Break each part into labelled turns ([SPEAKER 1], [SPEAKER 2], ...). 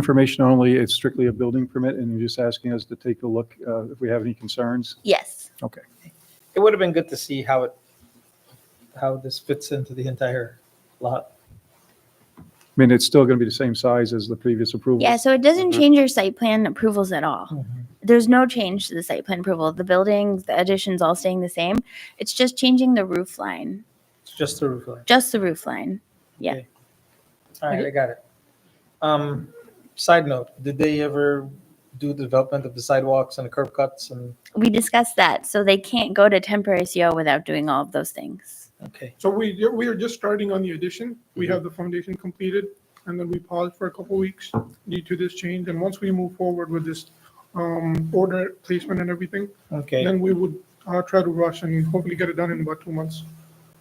[SPEAKER 1] information only. It's strictly a building permit, and you're just asking us to take a look uh, if we have any concerns.
[SPEAKER 2] Yes.
[SPEAKER 1] Okay.
[SPEAKER 3] It would have been good to see how it, how this fits into the entire lot.
[SPEAKER 1] I mean, it's still going to be the same size as the previous approval.
[SPEAKER 2] Yeah, so it doesn't
[SPEAKER 4] Mhm.
[SPEAKER 2] change your site plan approvals at all.
[SPEAKER 3] Mhm.
[SPEAKER 2] There's no change to the site plan approval. The buildings, the additions all staying the same. It's just changing the roof line,
[SPEAKER 3] It's just the roof line.
[SPEAKER 2] just the roof line. Yeah.
[SPEAKER 3] Okay. All right, I got it. Um, side note, did they ever do the development of the sidewalks and the curb cuts and,
[SPEAKER 2] We discussed that. So they can't go to temporary CO without doing all of those things.
[SPEAKER 3] okay.
[SPEAKER 5] So we, we are just starting on the addition.
[SPEAKER 3] Mm-hmm.
[SPEAKER 5] We have the foundation completed, and then we paused for a couple weeks due to this change. And once we move forward with this um, order placement and everything,
[SPEAKER 3] Okay.
[SPEAKER 5] then we would uh, try to rush and hopefully get it done in about two months,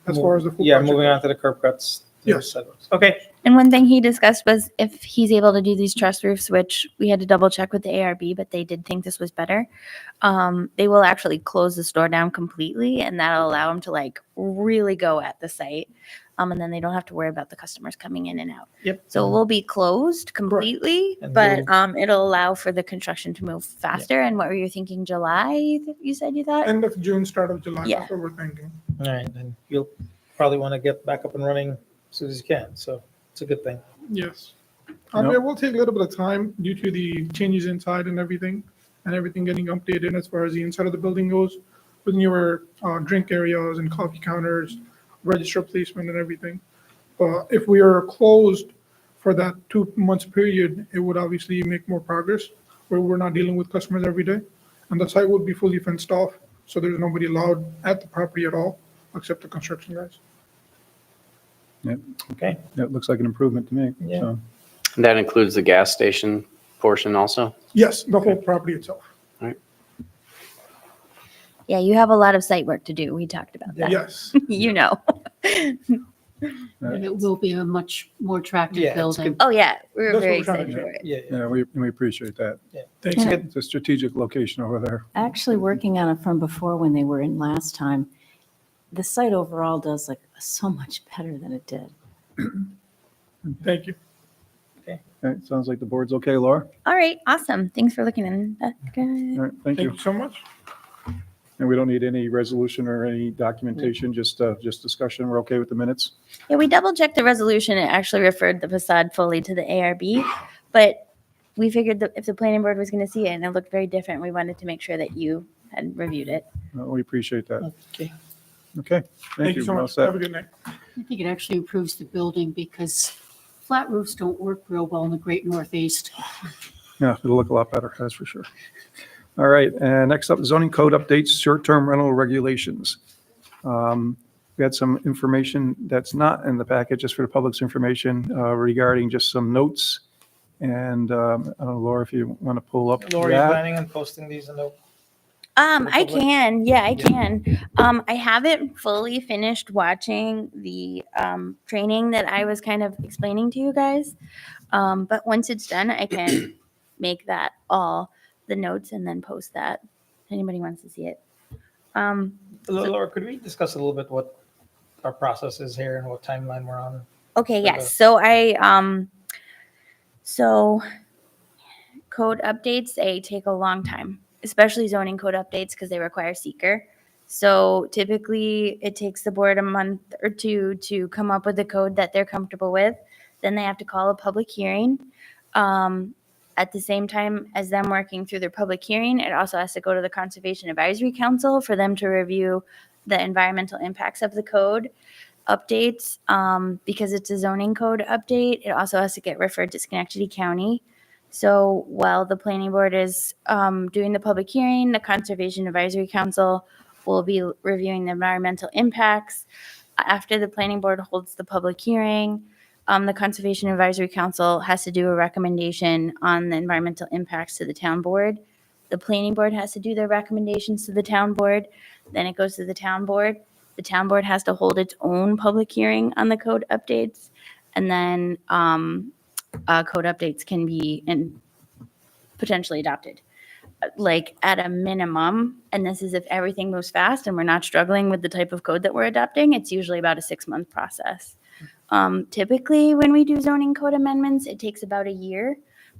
[SPEAKER 5] as far as the full
[SPEAKER 3] Yeah,
[SPEAKER 5] project.
[SPEAKER 3] moving on to the curb cuts. the
[SPEAKER 5] Yes.
[SPEAKER 3] sidewalks. Okay,
[SPEAKER 2] And one thing he discussed was if he's able to do these truss roofs, which we had to double check with the ARB, but they did think this was better. Um, they will actually close the store down completely, and that'll allow them to like really go at the site. Um, and then they don't have to worry about the customers coming in and out.
[SPEAKER 3] yep.
[SPEAKER 2] So we'll be closed completely,
[SPEAKER 3] And
[SPEAKER 2] but
[SPEAKER 3] we'll-
[SPEAKER 2] um, it'll allow for the construction to move faster. And what were you thinking? July? You said you thought.
[SPEAKER 5] End of June, start of July,
[SPEAKER 2] Yeah.
[SPEAKER 5] that's what we're thinking.
[SPEAKER 3] All right, and you'll probably want to get back up and running as soon as you can, so it's a good thing.
[SPEAKER 5] Yes. I mean, it will take a little bit of time due to the changes inside and everything, and everything getting updated as far as the inside of the building goes, with newer uh, drink areas and coffee counters, register placement and everything. But if we are closed for that two months period, it would obviously make more progress, where we're not dealing with customers every day. And the site would be fully fenced off, so there's nobody allowed at the property at all, except the construction guys.
[SPEAKER 3] Okay,
[SPEAKER 1] That looks like an improvement to me.
[SPEAKER 3] Yeah.
[SPEAKER 1] so.
[SPEAKER 4] That includes the gas station portion also?
[SPEAKER 5] Yes, the whole property itself.
[SPEAKER 2] Yeah, you have a lot of site work to do. We talked about that.
[SPEAKER 5] Yes.
[SPEAKER 2] you know.
[SPEAKER 1] Right.
[SPEAKER 6] And it will be a much more
[SPEAKER 3] Yeah,
[SPEAKER 6] attractive
[SPEAKER 3] it's
[SPEAKER 6] building.
[SPEAKER 2] Oh yeah, we were
[SPEAKER 5] That's what
[SPEAKER 2] very
[SPEAKER 5] we're trying to
[SPEAKER 2] excited
[SPEAKER 5] do.
[SPEAKER 2] for it.
[SPEAKER 3] yeah, yeah.
[SPEAKER 1] Yeah, we, we appreciate that.
[SPEAKER 5] Thanks.
[SPEAKER 3] It's a good,
[SPEAKER 1] It's a strategic location over there.
[SPEAKER 7] Actually, working on it from before when they were in last time, the site overall does like so much better than it did.
[SPEAKER 5] Thank you.
[SPEAKER 1] Okay, sounds like the board's okay, Laura?
[SPEAKER 2] All right, awesome. Thanks for looking in. That's good.
[SPEAKER 1] All right, thank
[SPEAKER 5] Thank
[SPEAKER 1] you.
[SPEAKER 5] you so much.
[SPEAKER 1] And we don't need any resolution or any documentation, just, uh, just discussion. We're okay with the minutes?
[SPEAKER 2] Yeah, we double checked the resolution. It actually referred the facade fully to the ARB, but we figured that if the planning board was going to see it and it looked very different, we wanted to make sure that you had reviewed it.
[SPEAKER 1] Uh, We appreciate that.
[SPEAKER 3] okay.
[SPEAKER 1] Okay,
[SPEAKER 5] Thank you so
[SPEAKER 1] All
[SPEAKER 5] much.
[SPEAKER 1] set.
[SPEAKER 5] Have a good night.
[SPEAKER 6] I think it actually improves the building because flat roofs don't work real well in the great northeast.
[SPEAKER 1] Yeah, it'll look a lot better, that's for sure. All right, and next up, zoning code updates, short-term rental regulations. Um, We had some information that's not in the packet, just for the public's information, uh, regarding just some notes. And um, I don't know, Laura, if you want to pull up
[SPEAKER 3] Laura, you
[SPEAKER 1] that.
[SPEAKER 3] planning on posting these in the
[SPEAKER 2] Um, I
[SPEAKER 3] Republic?
[SPEAKER 2] can, yeah, I
[SPEAKER 3] Yeah.
[SPEAKER 2] can. Um, I haven't fully finished watching the um training that I was kind of explaining to you guys. Um, but once it's done, I can make that all the notes and then post that. If anybody wants to see it. Um,
[SPEAKER 3] Laura, could we discuss a little bit what our process is here and what timeline we're on?
[SPEAKER 2] Okay,
[SPEAKER 3] for the-
[SPEAKER 2] yes. So I, um, so code updates, they take a long time, especially zoning code updates because they require seeker. So typically it takes the board a month or two to come up with a code that they're comfortable with. Then they have to call a public hearing. Um, at the same time as them working through their public hearing, it also has to go to the Conservation Advisory Council for them to review the environmental impacts of the code updates um, because it's a zoning code update. It also has to get referred to Schenectady County. So while the planning board is um, doing the public hearing, the Conservation Advisory Council will be reviewing the environmental impacts. After the planning board holds the public hearing, um, the Conservation Advisory Council has to do a recommendation on the environmental impacts to the town board. The planning board has to do their recommendations to the town board. Then it goes to the town board. The town board has to hold its own public hearing on the code updates. And then um, uh, code updates can be and potentially adopted. Uh, Like at a minimum, and this is if everything moves fast and we're not struggling with the type of code that we're adopting, it's usually about a six-month process. Um, Typically, when we do zoning code amendments, it takes about a year